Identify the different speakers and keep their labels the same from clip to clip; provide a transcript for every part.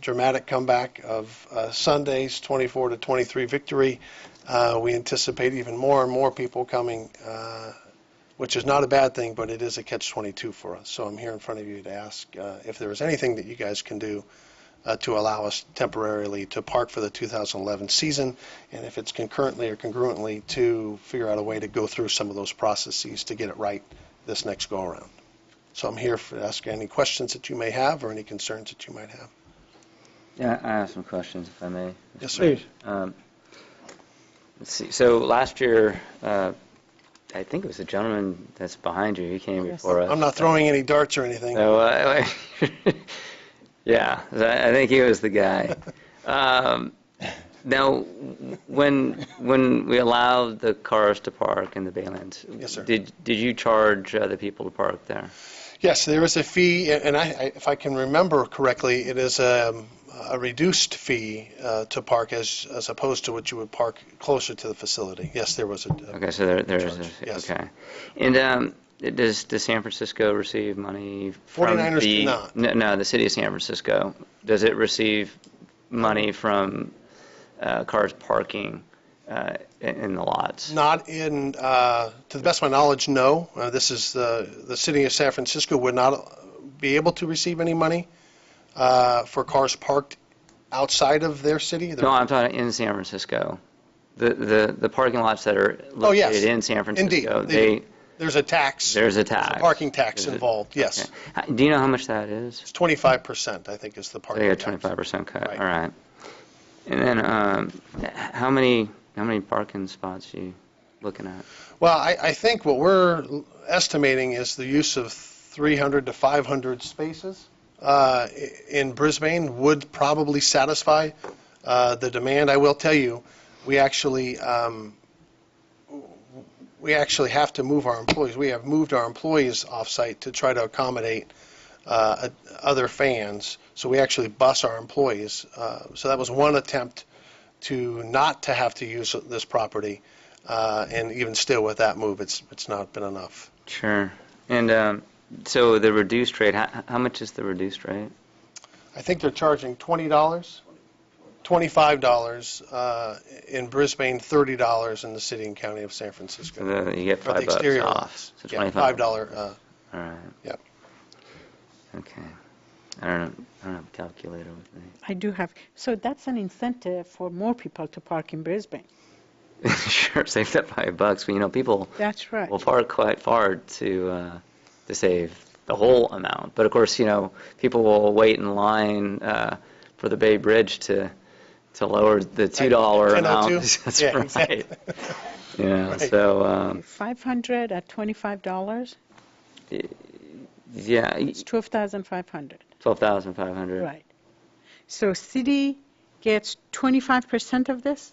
Speaker 1: dramatic comeback of uh, Sunday's 24 to 23 victory. Uh, we anticipate even more and more people coming, uh, which is not a bad thing, but it is a catch 22 for us. So I'm here in front of you to ask uh, if there is anything that you guys can do uh, to allow us temporarily to park for the 2011 season, and if it's concurrently or congruently, to figure out a way to go through some of those processes to get it right this next go-around. So I'm here for, to ask any questions that you may have or any concerns that you might have.
Speaker 2: Yeah, I have some questions, if I may.
Speaker 1: Yes, sir.
Speaker 2: Um, Let's see, so last year, uh, I think it was the gentleman that's behind you, he came before us.
Speaker 1: I'm not throwing any darts or anything.
Speaker 2: So, uh, yeah, so I I think he was the guy. Um, Now, when, when we allowed the cars to park in the Baylands?
Speaker 1: Yes, sir.
Speaker 2: Did, did you charge uh, the people to park there?
Speaker 1: Yes, there is a fee, and I, I- if I can remember correctly, it is um, a reduced fee uh, to park as, as opposed to what you would park closer to the facility. Yes, there was a,
Speaker 2: Okay, so there, there's,
Speaker 1: Charge,
Speaker 2: a-
Speaker 1: yes.
Speaker 2: okay. And um, does, does San Francisco receive money from the?
Speaker 1: 49ers do not.
Speaker 2: No, no, the city of San Francisco. Does it receive money from uh, cars parking uh, in in the lots?
Speaker 1: Not in, uh, to the best of my knowledge, no. Uh, This is, the the city of San Francisco would not be able to receive any money uh, for cars parked outside of their city.
Speaker 2: No, I'm talking in San Francisco. The, the, the parking lots that are
Speaker 1: Oh, yes.
Speaker 2: located in San Francisco,
Speaker 1: Indeed, they
Speaker 2: they,
Speaker 1: do. There's a tax.
Speaker 2: there's a
Speaker 1: There's
Speaker 2: tax.
Speaker 1: parking tax
Speaker 2: There's a-
Speaker 1: involved, yes.
Speaker 2: okay. Uh, Do you know how much that is?
Speaker 1: It's 25%, I think, is the parking
Speaker 2: They got
Speaker 1: tax.
Speaker 2: twenty-five percent cut,
Speaker 1: Right.
Speaker 2: all right. And then, um, h- how many, how many parking spots you looking at?
Speaker 1: Well, I, I think what we're estimating is the use of 300 to 500 spaces uh, i- in Brisbane would probably satisfy uh, the demand. I will tell you, we actually, um, we actually have to move our employees. We have moved our employees off-site to try to accommodate uh, other fans, so we actually bus our employees. Uh, So that was one attempt to not to have to use this property. Uh, and even still with that move, it's, it's not been enough.
Speaker 2: Sure. And, um, so the reduced rate, how, how much is the reduced rate?
Speaker 1: I think they're charging $20, $25 uh, in Brisbane, $30 in the city and county of San Francisco.
Speaker 2: So the- you get
Speaker 1: For the
Speaker 2: five bucks Ah,
Speaker 1: exterior
Speaker 2: off,
Speaker 1: lots.
Speaker 2: so
Speaker 1: Yeah,
Speaker 2: 25.
Speaker 1: $5, uh,
Speaker 2: All right.
Speaker 1: Yep.
Speaker 2: Okay. I don't, know. I don't have a calculator with me.
Speaker 3: I do have, so that's an incentive for more people to park in Brisbane.
Speaker 2: Sure, save that five bucks, but you know, people
Speaker 3: That's right.
Speaker 2: will park quite far to, uh, to save the whole amount. But of course, you know, people will wait in line uh, for the Bay Bridge to, to lower the $2
Speaker 3: oh
Speaker 2: amount.
Speaker 1: 10.02?
Speaker 2: That's
Speaker 1: Yeah,
Speaker 2: right.
Speaker 1: exactly.
Speaker 2: You know,
Speaker 1: Right.
Speaker 2: so, um,
Speaker 3: 500 at $25,
Speaker 2: yeah,
Speaker 3: it's 12,500,
Speaker 2: 12,500.
Speaker 3: right. So city gets 25% of this?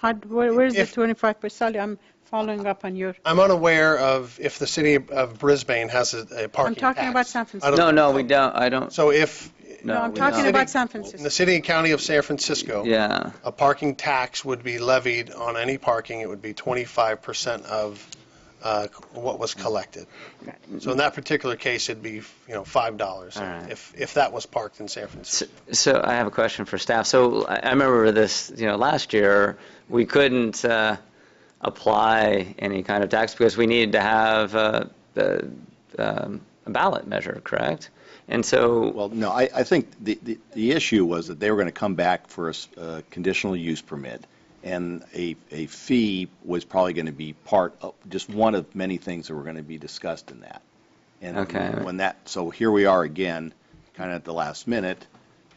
Speaker 3: How, where- where's the
Speaker 1: If-
Speaker 3: 25%? I'm following up on your,
Speaker 1: I'm unaware of if the city of Brisbane has a a parking tax.
Speaker 3: talking about San
Speaker 1: I don't-
Speaker 3: Francisco.
Speaker 2: No, no, we don't, I don't,
Speaker 1: So if,
Speaker 2: no.
Speaker 3: no, I'm
Speaker 2: we
Speaker 3: talking
Speaker 2: don't.
Speaker 3: about San
Speaker 1: in the
Speaker 3: Francisco.
Speaker 1: city and county of San Francisco,
Speaker 2: Yeah,
Speaker 1: a parking tax would be levied on any parking, it would be 25% of uh, what was collected.
Speaker 3: Got
Speaker 1: So in that particular case, it'd be, you know,
Speaker 2: All
Speaker 1: $5
Speaker 2: right.
Speaker 1: if, if that was parked in San Francisco.
Speaker 2: S- So I have a question for staff. So I I remember this, you know, last year, we couldn't uh, apply any kind of tax because we needed to have uh, the, um, a ballot measure, correct? And so,
Speaker 4: Well, no, I, I think the, the, the issue was that they were going to come back for a s- a conditional use permit, and a, a fee was probably going to be part of, just one of many things that were going to be discussed in that.
Speaker 2: Okay.
Speaker 4: And when that, so here we are again, kind of at the last minute,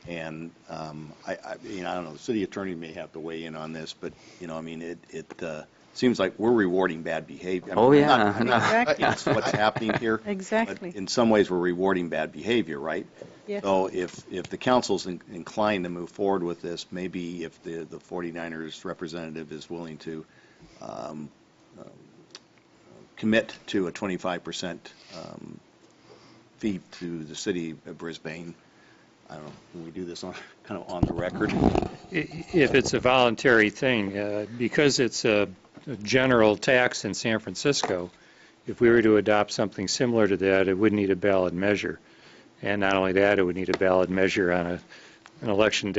Speaker 4: and um, I, I, you know, I don't know, the city attorney may have to weigh in on this, but, you know, I mean, it, it uh, seems like we're rewarding bad behavior. I mean,
Speaker 2: oh,
Speaker 4: I'm not-
Speaker 2: yeah.
Speaker 4: I'm
Speaker 2: no.
Speaker 4: not
Speaker 3: Exactly.
Speaker 4: that's what's happening here.
Speaker 3: Exactly.
Speaker 4: But in some ways, we're rewarding bad behavior, right?
Speaker 3: Yes.
Speaker 4: So if, if the council's in- inclined to move forward with this, maybe if the, the 49ers representative is willing to um, um, commit to a 25% um, fee to the city of Brisbane, I don't know, can we do this on, kind of on the record?
Speaker 5: i- if it's a voluntary thing, uh, because it's a a general tax in San Francisco, if we were to adopt something similar to that, it would need a ballot measure. And not only that, it would need a ballot measure on a an election